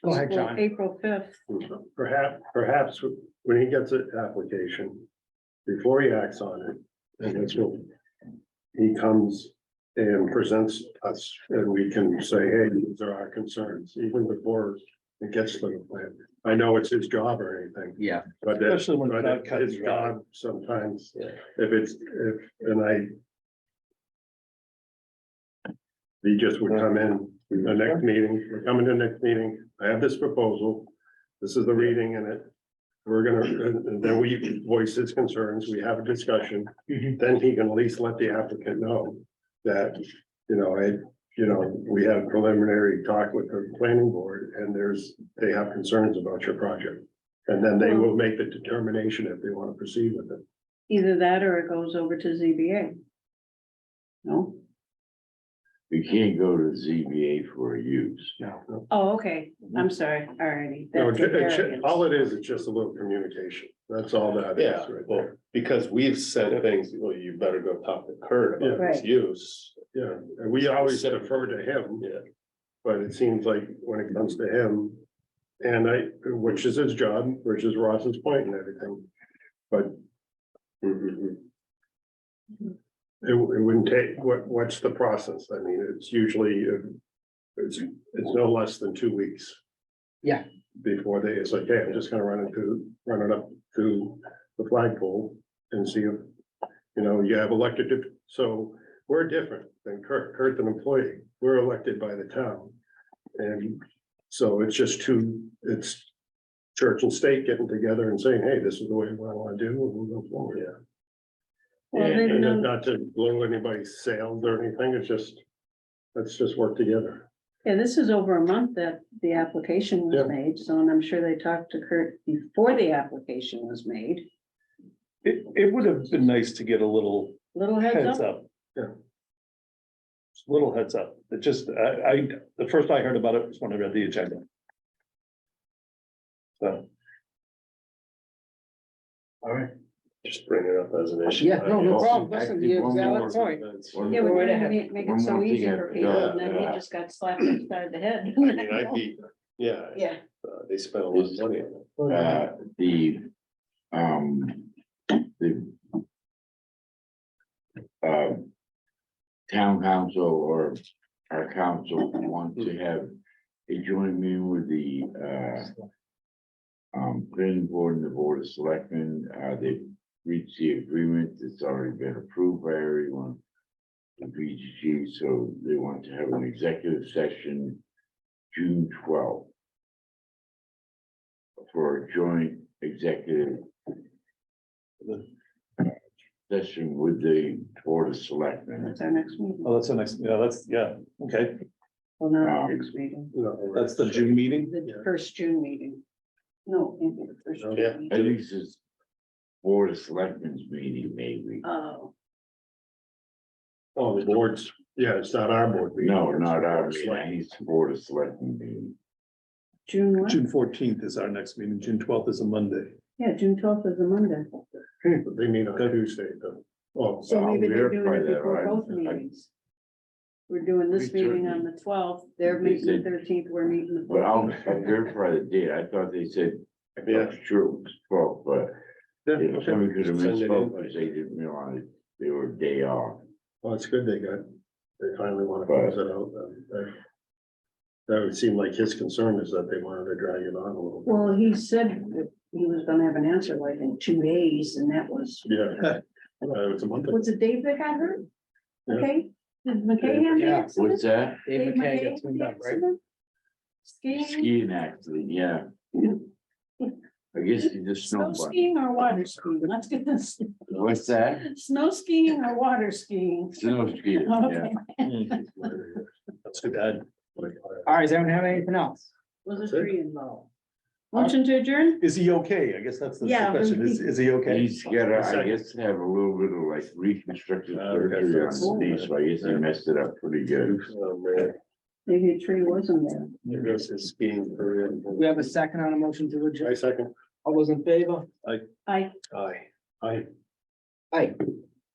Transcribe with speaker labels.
Speaker 1: Go ahead,
Speaker 2: Well,
Speaker 1: John.
Speaker 2: April fifth,
Speaker 3: Perhaps, perhaps when he gets an application, before he acts on it, and that's what. He comes and presents us, and we can say, hey, these are our concerns, even before it gets to the plan. I know it's his job or anything,
Speaker 4: Yeah,
Speaker 3: but that's,
Speaker 5: Especially when
Speaker 3: but
Speaker 5: God cut
Speaker 3: it's
Speaker 5: you out.
Speaker 3: God sometimes, if it's, if, and I. He just would come in the next meeting, we're coming to the next meeting, I have this proposal, this is the reading in it. We're gonna, and- and then we voice his concerns, we have a discussion,
Speaker 5: Mm-hmm.
Speaker 1: Mhm.
Speaker 3: then he can at least let the applicant know that, you know, I, you know, we had preliminary talk with the planning board, and there's, they have concerns about your project. And then they will make the determination if they want to proceed with it.
Speaker 2: either that or it goes over to ZBA. No?
Speaker 6: You can't go to ZBA for a use.
Speaker 3: No,
Speaker 2: Oh, okay, I'm sorry, alrighty.
Speaker 3: No,
Speaker 2: That's
Speaker 3: it- it should-
Speaker 2: variance.
Speaker 3: all it is, it's just a little communication, that's all that is.
Speaker 5: Yeah,
Speaker 3: right
Speaker 5: well,
Speaker 3: there.
Speaker 5: because we've said things, well, you better go talk to Kurt about
Speaker 2: Yeah.
Speaker 5: this use.
Speaker 3: Yeah, and we always defer to him.
Speaker 5: Yeah.
Speaker 3: But it seems like when it comes to him, and I, which is his job, which is Ross's point and everything, but. mhm. It, wou- it wouldn't take, what, what's the process? I mean, it's usually, uh, it's, it's no less than two weeks.
Speaker 1: Yeah.
Speaker 3: Before they, it's like, hey, I'm just gonna run it to, run it up to the flagpole and see if, you know, you have elected, dip- so we're different than Kurt, Kurt's an employee, we're elected by the town. And so it's just two, it's church and state getting together and saying, hey, this is the way we want to do, it, we'll go forward. Yeah.
Speaker 2: Well, then,
Speaker 3: And then
Speaker 2: um,
Speaker 3: not to blow anybody's sails or anything, it's just, let's just work together.
Speaker 2: Yeah, this is over a month that the application
Speaker 3: Yeah.
Speaker 2: was made, so and I'm sure they talked to Kurt before the application was made.
Speaker 5: It, it would have been nice to get a little
Speaker 2: Little heads
Speaker 5: heads
Speaker 2: up,
Speaker 5: up.
Speaker 3: Yeah.
Speaker 5: Just a Little heads up, it just, I, I, the first I heard about it was when I read the agenda. So. All right. Just bring it up as an issue.
Speaker 1: Yeah, no, no
Speaker 6: Also,
Speaker 1: problem. Listen,
Speaker 6: actually,
Speaker 1: you're
Speaker 6: one
Speaker 1: valid
Speaker 6: more-
Speaker 1: point.
Speaker 6: one
Speaker 2: yeah, we
Speaker 6: more-
Speaker 1: Go right
Speaker 2: wanted to
Speaker 1: ahead.
Speaker 2: make make
Speaker 6: One
Speaker 2: it so
Speaker 6: more thing
Speaker 2: easy
Speaker 6: I
Speaker 2: for people,
Speaker 6: forgot,
Speaker 2: and then he
Speaker 6: uh,
Speaker 2: just got slapped upside the head.
Speaker 5: I mean, I'd be, yeah,
Speaker 2: Yeah,
Speaker 5: uh, they spent a lot of money on it.
Speaker 6: Uh, the, um, the. Uh. Town council or our council want to have a joint meeting with the, uh. Um, planning board and the board of selectmen, uh, they reached the agreement that's already been approved by everyone. The BGG, so they want to have an executive session June twelfth for a joint executive session with the Board of Selectmen.
Speaker 2: that's our next meeting,
Speaker 5: Oh, that's the next, yeah, that's, yeah, okay,
Speaker 2: well, not the
Speaker 6: Um,
Speaker 2: next meeting,
Speaker 5: that's the June meeting.
Speaker 2: the first June meeting. No, it can't be the first June
Speaker 5: Yeah.
Speaker 2: meeting.
Speaker 6: At least it's Board of Selectmen's meeting, maybe.
Speaker 2: Oh,
Speaker 3: Oh, the boards, yeah, it's not our board. meeting,
Speaker 6: No,
Speaker 3: it's
Speaker 6: not
Speaker 3: the
Speaker 6: our
Speaker 3: board's like-
Speaker 6: meeting, it's Board of Selectmen meeting.
Speaker 2: June what?
Speaker 5: June fourteenth is our next meeting, June twelfth is a Monday.
Speaker 2: Yeah, June twelfth is a Monday.
Speaker 3: They meet on Tuesday, though. Oh,
Speaker 2: So
Speaker 6: I'll
Speaker 2: maybe they're doing
Speaker 6: verify
Speaker 2: it
Speaker 6: that,
Speaker 2: before
Speaker 6: right?
Speaker 2: both
Speaker 6: I-
Speaker 2: meetings. We're doing this
Speaker 6: We
Speaker 2: meeting on
Speaker 6: certainly-
Speaker 2: the twelfth, they're
Speaker 6: They
Speaker 2: meeting the
Speaker 6: said-
Speaker 2: thirteenth, we're meeting the
Speaker 6: But I'll I'll
Speaker 2: fourteenth.
Speaker 6: verify the date. I thought they said, I
Speaker 3: Yeah.
Speaker 6: thought sure it was twelve, but you know, somebody could have
Speaker 3: Send it in.
Speaker 6: misspoke because they didn't realize they were day off.
Speaker 3: Well, it's good they got, they finally want to close it out. um, that- That would seem like his concern is that they wanted to drag it on a little. bit.
Speaker 2: Well, he said that he was gonna have an answer like in two days, and that was,
Speaker 3: Yeah. Uh, It was a month. ago.
Speaker 2: was it Dave that got hurt?
Speaker 3: Yeah.
Speaker 2: Okay, did McKay have the
Speaker 1: Yeah.
Speaker 2: accident?
Speaker 6: What's that?
Speaker 1: Dave McKay got
Speaker 2: had
Speaker 1: tuned
Speaker 2: the
Speaker 1: up, right?
Speaker 2: accident? Skiing,
Speaker 6: Skiing accident, yeah. I guess you just
Speaker 2: snow
Speaker 6: snowboard.
Speaker 2: skiing or water skiing, let's get this,
Speaker 6: What's that?
Speaker 2: snow skiing or water skiing.
Speaker 6: Snow skiing, yeah.
Speaker 2: Okay,
Speaker 5: That's too bad.
Speaker 1: All right, does anyone have anything else?
Speaker 2: was a tree involved. Motion to adjourn?
Speaker 5: Is he okay? I guess that's the
Speaker 2: Yeah.
Speaker 5: question. Is, is he okay?
Speaker 6: He's gotta, I
Speaker 3: Second.
Speaker 6: guess, have a little bit of like reconstructive
Speaker 3: Uh, okay,
Speaker 6: surgery on his
Speaker 3: so-
Speaker 6: knee, so I guess he messed it up pretty good.
Speaker 3: Oh, man.
Speaker 2: Maybe a tree wasn't there.
Speaker 3: There goes his skiing career.
Speaker 1: We have a second on a motion to adjourn.
Speaker 3: I second.
Speaker 1: All those in favor?
Speaker 2: I
Speaker 3: Aye. Aye.
Speaker 1: Aye.